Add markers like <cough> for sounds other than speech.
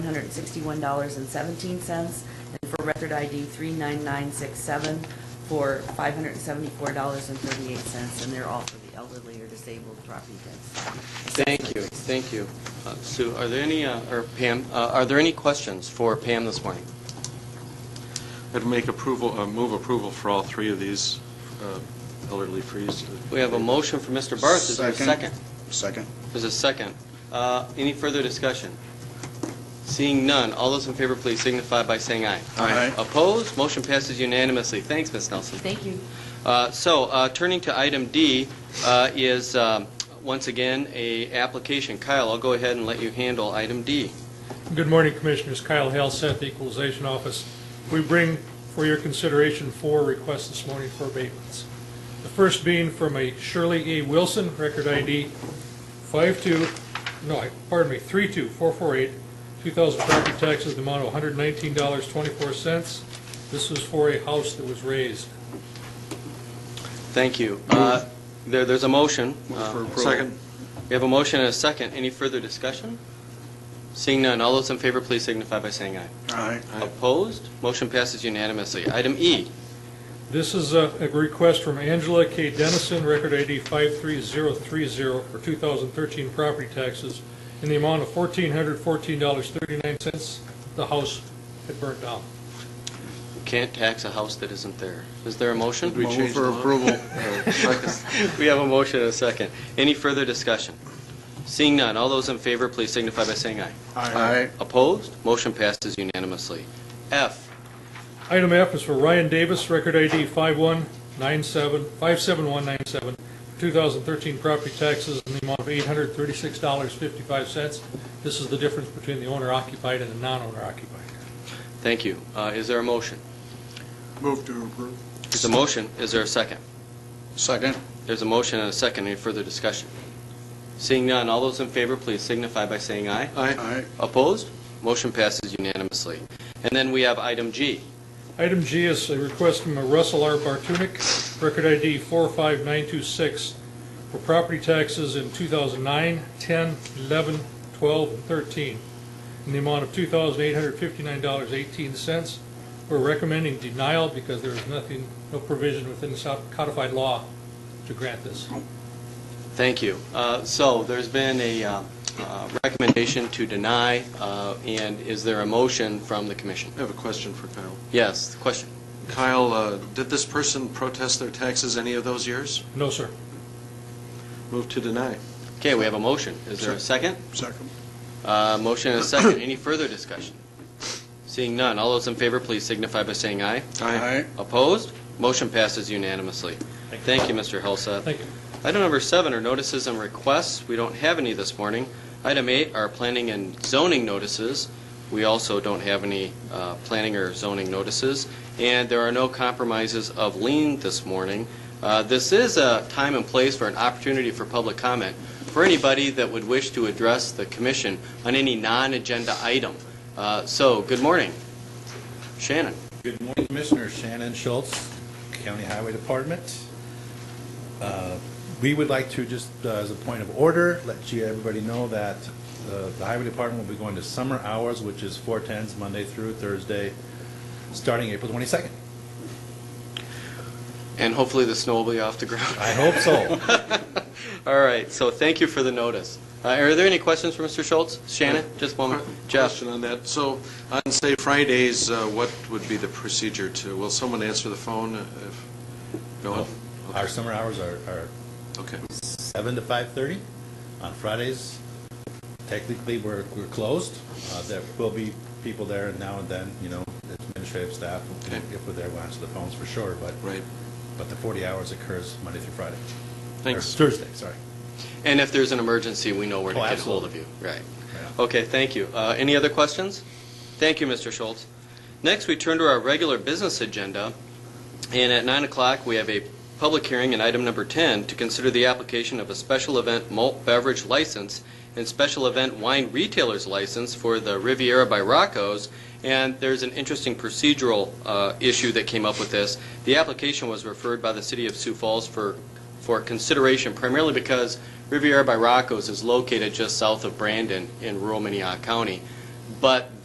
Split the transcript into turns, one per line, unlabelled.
$161.17, and for record ID 39967 for $574.38, and they're all for the elderly or disabled property tax.
Thank you, thank you. Uh, Sue, are there any, uh, or Pam, uh, are there any questions for Pam this morning?
I'd make approval, uh, move approval for all three of these uh, elderly freeze.
We have a motion for Mr. Barth, is there a second?
Second.
There's a second. Uh, Any further discussion? Seeing none, all those in favor, please signify by saying aye.
Aye.
Opposed, motion passes unanimously. Thanks, Ms. Nelson.
Thank you.
Uh, So, uh, turning to item D uh, is, um, once again, a application. Kyle, I'll go ahead and let you handle item D.
Good morning, Commissioners. Kyle Halseth, the Equalization Office. We bring for your consideration four requests this morning for abatements. The first being from a Shirley A. Wilson, record ID 52, no, I- pardon me, 32448, 2000 property taxes, the amount of $119.24. This was for a house that was raised.
Thank you. Uh, there- There's a motion. Uh,
Second.
We have a motion and a second. Any further discussion? Seeing none, all those in favor, please signify by saying aye.
Aye.
Aye.
Opposed? Motion passes unanimously. Item E,
This is a a request from Angela K. Dennison, record ID 53030, for 2013 property taxes in the amount of $1,414.39. The house had burnt down.
can't tax a house that isn't there. Is there a motion?
Did we change the law? <laughs> Oh,
approval.
<laughs> We have a motion and a second. Any further discussion? Seeing none, all those in favor, please signify by saying aye.
Aye.
Opposed? Motion passes unanimously. F,
Item F is for Ryan Davis, record ID 5197, 57197, for 2013 property taxes in the amount of $836.55. This is the difference between the owner occupied and the non-owner occupied.
thank you. Uh, Is there a motion?
Move to approve.
There's a motion. Is there a second?
Second.
There's a motion and a second. Any further discussion? Seeing none, all those in favor, please signify by saying aye.
Aye.
Opposed? Motion passes unanimously. And then we have item G.
Item G is a request from Russell R. Bartunik, record ID 45926, for property taxes in 2009, 10, 11, 12, and 13, in the amount of $2,859.18. We're recommending denial because there is nothing, no provision within the South codified law to grant this.
Thank you. Uh, So there's been a uh, uh, recommendation to deny, uh, and is there a motion from the commission?
I have a question for Kyle.
Yes, question.
Kyle, uh, did this person protest their taxes any of those years?
No, sir.
Move to deny.
Okay, we have a motion. Is there a second?
Second.
Uh, Motion and a second. Any further discussion? Seeing none, all those in favor, please signify by saying aye. Opposed? Motion passes unanimously. Thank you, Mr. Hulseth.
Thank you.
Item number seven are notices and requests. We don't have any this morning. Item eight are planning and zoning notices. We also don't have any uh, planning or zoning notices. And there are no compromises of lien this morning. Uh, This is a time and place for an opportunity for public comment for anybody that would wish to address the commission on any non-agenda item. Uh, So, good morning. Shannon.
Good morning, Commissioner Shannon Schultz, County Highway Department. Uh, We would like to, just uh, as a point of order, let you, everybody know that uh, the Highway Department will be going to summer hours, which is 4:10s Monday through Thursday, starting April 22nd.
And hopefully the snow will be off the ground.
I
<laughs>
hope so.
All right, so thank you for the notice. Uh, Are there any questions for Mr. Schultz? Shannon, just
Uh,
one moment. Jeff?
Question on that. So on, say, Fridays, uh, what would be the procedure to, will someone answer the phone if, no?
Our summer hours are are
Okay.
7 to 5:30 on Fridays. Technically, we're we're closed. Uh, There will be people there now and then, you know, administrative staff,
Okay.
if we're there, we'll answer the phones for sure, but
Right.
But the 40 hours occurs Monday through Friday.
Thanks.
Or Thursday, sorry.
And if there's an emergency, we know where to
Oh,
get hold of you.
absolutely.
Right.
Yeah.
Okay, thank you. Uh, Any other questions? Thank you, Mr. Schultz. Next, we turn to our regular business agenda, and at 9 o'clock, we have a public hearing in item number 10 to consider the application of a special event malt beverage license and special event wine retailer's license for the Riviera by Rocco's, and there's an interesting procedural uh, issue that came up with this. The application was referred by the city of Sioux Falls for, for consideration primarily because Riviera by Rocco's is located just south of Brandon in rural Minnehaha County. But